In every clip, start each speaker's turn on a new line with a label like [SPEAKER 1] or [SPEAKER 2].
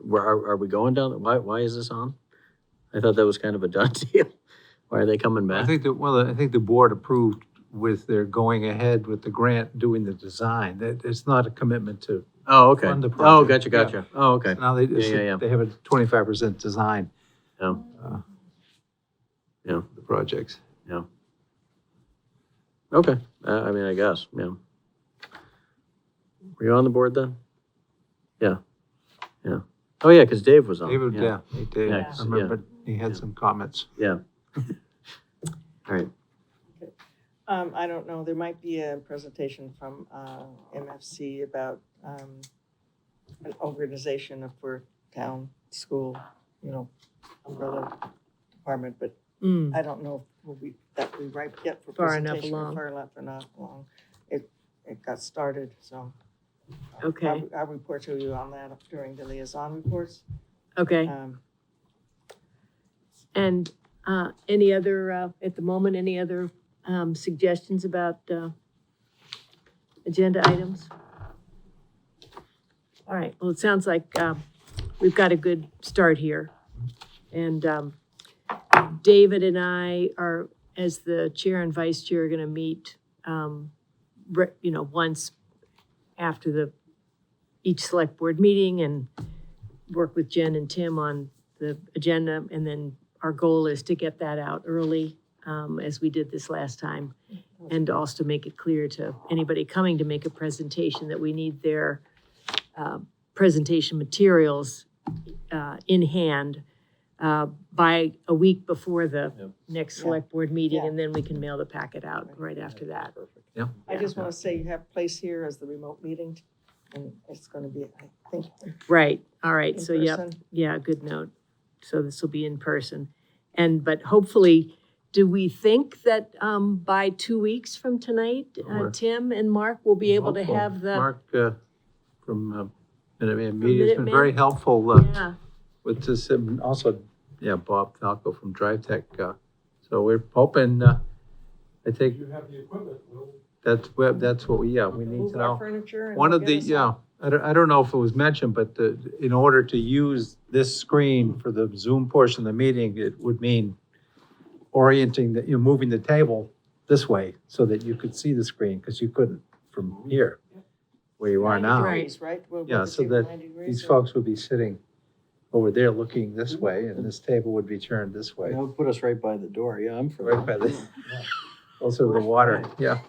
[SPEAKER 1] where are, are we going down? Why, why is this on? I thought that was kind of a done deal. Why are they coming
[SPEAKER 2] I
[SPEAKER 1] back?
[SPEAKER 2] think that, well, I think the board approved with their going ahead with the grant, doing the design. That, it's not a commitment to,
[SPEAKER 1] Oh, okay.
[SPEAKER 2] fund the
[SPEAKER 1] Oh,
[SPEAKER 2] project,
[SPEAKER 1] gotcha,
[SPEAKER 2] yeah.
[SPEAKER 1] gotcha. Oh, okay.
[SPEAKER 2] now they,
[SPEAKER 1] Yeah, yeah, yeah.
[SPEAKER 2] they have a twenty-five percent design.
[SPEAKER 1] Oh.
[SPEAKER 2] uh,
[SPEAKER 1] Yeah.
[SPEAKER 2] The projects.
[SPEAKER 1] Okay, uh, I mean, I guess, yeah. Were you on the board then? Yeah, yeah. Oh, yeah, because Dave was on.
[SPEAKER 2] David, yeah, he did.
[SPEAKER 1] Yeah,
[SPEAKER 2] I
[SPEAKER 1] yeah.
[SPEAKER 2] remember, he
[SPEAKER 1] Yeah.
[SPEAKER 2] had some comments.
[SPEAKER 1] All right,
[SPEAKER 3] Um, I don't know, there might be a presentation from, uh, MFC about, um, an organization of for town, school, you know, umbrella department, but
[SPEAKER 4] Mm,
[SPEAKER 3] I don't know if we'll be, that we ripe yet for
[SPEAKER 4] Far enough
[SPEAKER 3] presentation. or
[SPEAKER 4] along.
[SPEAKER 3] Far enough and not long. It, it got started, so. I'll-
[SPEAKER 4] Okay.
[SPEAKER 3] I'll- I'll report to you on that during the liaison reports.
[SPEAKER 4] okay,
[SPEAKER 3] Um,
[SPEAKER 4] and, uh, any other, uh, at the moment, any other, um, suggestions about, uh, agenda items? All right, well, it sounds like, um, we've got a good start here. And, um, David and I are, as the chair and vice chair, are gonna meet, um, re- you know, once after the, each select board meeting and work with Jen and Tim on the agenda, and then our goal is to get that out early, um, as we did this last time. And also make it clear to anybody coming to make a presentation that we need their, uh, presentation materials, uh, in hand, uh, by a week before the
[SPEAKER 1] Yep.
[SPEAKER 4] next
[SPEAKER 3] Yeah.
[SPEAKER 4] select board meeting,
[SPEAKER 3] Yeah.
[SPEAKER 4] and then we can mail the packet out right after that.
[SPEAKER 3] I just want to say you have place here as the remote meeting, and it's going to be, I think,
[SPEAKER 4] Right, all
[SPEAKER 3] in
[SPEAKER 4] right, so yep.
[SPEAKER 3] person.
[SPEAKER 4] Yeah, good note. So this will be in person. And, but hopefully, do we think that um, by two weeks from tonight, uh,
[SPEAKER 2] Sure.
[SPEAKER 4] Tim and Mark will be able to
[SPEAKER 2] Helpful.
[SPEAKER 4] have the?
[SPEAKER 2] Mark, uh, from, uh, Minuteman Media has been
[SPEAKER 4] Minuteman?
[SPEAKER 2] very helpful, uh,
[SPEAKER 4] Yeah,
[SPEAKER 2] with this, and also, yeah, Bob Falco from Drive Tech. Uh, so we're hoping, uh, I think. You have the equipment. That's, what- that's what we, yeah, we need
[SPEAKER 3] Move
[SPEAKER 2] to
[SPEAKER 3] our
[SPEAKER 2] know.
[SPEAKER 3] furniture and
[SPEAKER 2] One of
[SPEAKER 3] get
[SPEAKER 2] the,
[SPEAKER 3] us
[SPEAKER 2] yeah, I don't, I don't know if it was mentioned, but the, in order to use this screen for the Zoom portion of the meeting, it would mean orienting, that you're moving the table this way so that you could see the screen, because you couldn't from here, where you are
[SPEAKER 3] 90
[SPEAKER 2] now
[SPEAKER 3] degrees, Right? We'll
[SPEAKER 2] Yeah,
[SPEAKER 3] put
[SPEAKER 2] so
[SPEAKER 3] you
[SPEAKER 2] that
[SPEAKER 3] 90 degrees
[SPEAKER 2] these
[SPEAKER 3] and-
[SPEAKER 2] folks would be sitting over there looking this way, and this table would be turned this way,
[SPEAKER 5] That would put us right by the door, yeah, I'm for
[SPEAKER 2] right
[SPEAKER 5] that.
[SPEAKER 2] by the, also the water, yeah.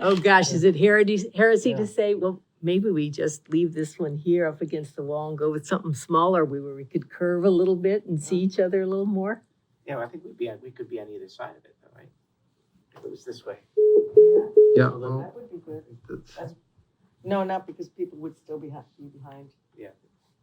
[SPEAKER 4] oh gosh, is it heresy, heresy
[SPEAKER 3] Yeah.
[SPEAKER 4] to say, well, maybe we just leave this one here up against the wall and go with something smaller, we- where we could curve a little bit and see each other a little more?
[SPEAKER 6] Yeah, well, I think we'd be, on- we could be on either side of it, though, right? If it was this way.
[SPEAKER 2] Yeah,
[SPEAKER 6] Well,
[SPEAKER 2] well,
[SPEAKER 3] That would be good.
[SPEAKER 2] that's-
[SPEAKER 3] No, not because people would still be, ha- be behind.
[SPEAKER 6] Yeah.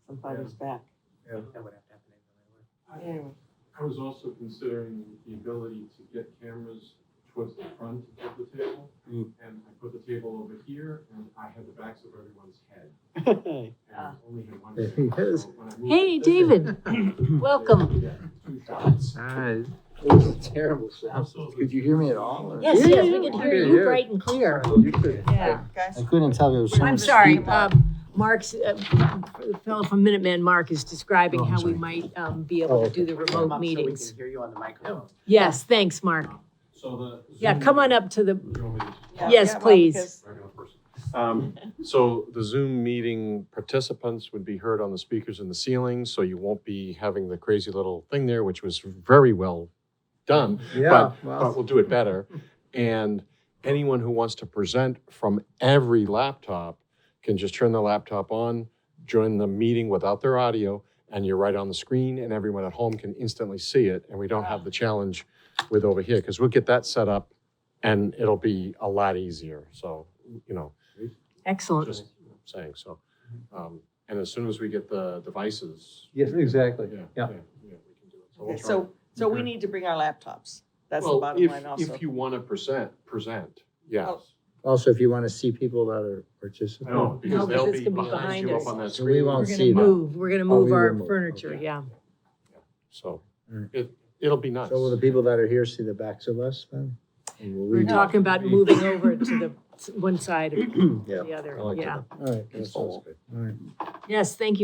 [SPEAKER 3] Somebody's back.
[SPEAKER 6] That would have to happen anyway.
[SPEAKER 3] Anyway,
[SPEAKER 7] I was also considering the ability to get cameras towards the front of the table.
[SPEAKER 5] Mm.
[SPEAKER 7] And I put the table over here and I had the backs of everyone's head. And I
[SPEAKER 3] Ah.
[SPEAKER 7] only had one
[SPEAKER 2] There
[SPEAKER 7] thing.
[SPEAKER 2] he is.
[SPEAKER 7] So when I moved
[SPEAKER 4] Hey,
[SPEAKER 7] it,
[SPEAKER 4] David, welcome.
[SPEAKER 7] yeah, Two shots.
[SPEAKER 2] all right.
[SPEAKER 5] It was a terrible sound.
[SPEAKER 7] Absolutely.
[SPEAKER 5] Could you hear me at all? or-
[SPEAKER 4] Yes,
[SPEAKER 2] Yeah,
[SPEAKER 4] yes, we
[SPEAKER 2] yeah,
[SPEAKER 4] can hear
[SPEAKER 2] yeah,
[SPEAKER 4] you
[SPEAKER 2] yeah.
[SPEAKER 4] bright and clear.
[SPEAKER 5] You could-
[SPEAKER 4] Yeah.
[SPEAKER 3] guys.
[SPEAKER 5] I couldn't tell if it was.
[SPEAKER 4] I'm
[SPEAKER 5] someone
[SPEAKER 4] sorry,
[SPEAKER 5] speaking.
[SPEAKER 4] um, Mark's, uh, the fellow from Minuteman, Mark, is describing
[SPEAKER 5] Oh, I'm
[SPEAKER 4] how we
[SPEAKER 5] sorry.
[SPEAKER 4] might um, be
[SPEAKER 2] Oh,
[SPEAKER 4] able to
[SPEAKER 2] okay.
[SPEAKER 4] do the
[SPEAKER 6] Come up so
[SPEAKER 4] remote
[SPEAKER 6] we can
[SPEAKER 4] meetings.
[SPEAKER 6] Hear you on the microphone.
[SPEAKER 4] Yes, thanks, Mark.
[SPEAKER 7] So the.
[SPEAKER 4] Yeah,
[SPEAKER 7] Zoom-
[SPEAKER 4] come on up to the,
[SPEAKER 7] You want me to-
[SPEAKER 3] Yeah,
[SPEAKER 4] Yes,
[SPEAKER 3] yeah, well,
[SPEAKER 4] please.
[SPEAKER 3] because-
[SPEAKER 7] regular person. Um, So the Zoom meeting participants would be heard on the speakers in the ceiling, so you won't be having the crazy little thing there, which was very well done,
[SPEAKER 2] Yeah,
[SPEAKER 7] but
[SPEAKER 2] well,
[SPEAKER 7] we'll do it better. And anyone who wants to present from every laptop can just turn the laptop on, join the meeting without their audio, and you're right on the screen, and everyone at home can instantly see it, and we don't have the challenge with over here, because we'll get that set up, and it'll be a lot easier, so, you know,
[SPEAKER 4] excellent.
[SPEAKER 7] just saying, so. um, And as soon as we get the devices.
[SPEAKER 2] yes, exactly, yeah.
[SPEAKER 7] yeah, we can do it. we'll
[SPEAKER 3] Okay,
[SPEAKER 7] try.
[SPEAKER 3] so, so we need to bring our laptops. That's the
[SPEAKER 7] Well,
[SPEAKER 3] bottom
[SPEAKER 7] if-
[SPEAKER 3] line also. Oh,
[SPEAKER 7] If you want to present, present, yes.
[SPEAKER 5] Also, if you want to see people that are participating.
[SPEAKER 7] No, because
[SPEAKER 4] because
[SPEAKER 7] they'll
[SPEAKER 4] it's
[SPEAKER 7] be
[SPEAKER 4] gonna be
[SPEAKER 7] behind
[SPEAKER 4] behind
[SPEAKER 7] you
[SPEAKER 4] us.
[SPEAKER 7] up on that
[SPEAKER 5] So we
[SPEAKER 7] screen.
[SPEAKER 5] won't
[SPEAKER 4] We're
[SPEAKER 5] see
[SPEAKER 4] gonna
[SPEAKER 5] that.
[SPEAKER 4] move, we're gonna move
[SPEAKER 5] we
[SPEAKER 4] our
[SPEAKER 5] remote,
[SPEAKER 4] furniture,
[SPEAKER 5] okay.
[SPEAKER 4] yeah.
[SPEAKER 7] So
[SPEAKER 5] Alright.
[SPEAKER 7] it, it'll be nice.
[SPEAKER 5] Mm. So will the people that are here see the backs of us then? And will
[SPEAKER 4] We're
[SPEAKER 5] we-
[SPEAKER 4] talking about moving over to the s- one side of
[SPEAKER 5] Yeah.
[SPEAKER 4] the other,
[SPEAKER 2] I like
[SPEAKER 4] yeah.
[SPEAKER 5] All right, that sounds good. All right.
[SPEAKER 4] Yes, thank you.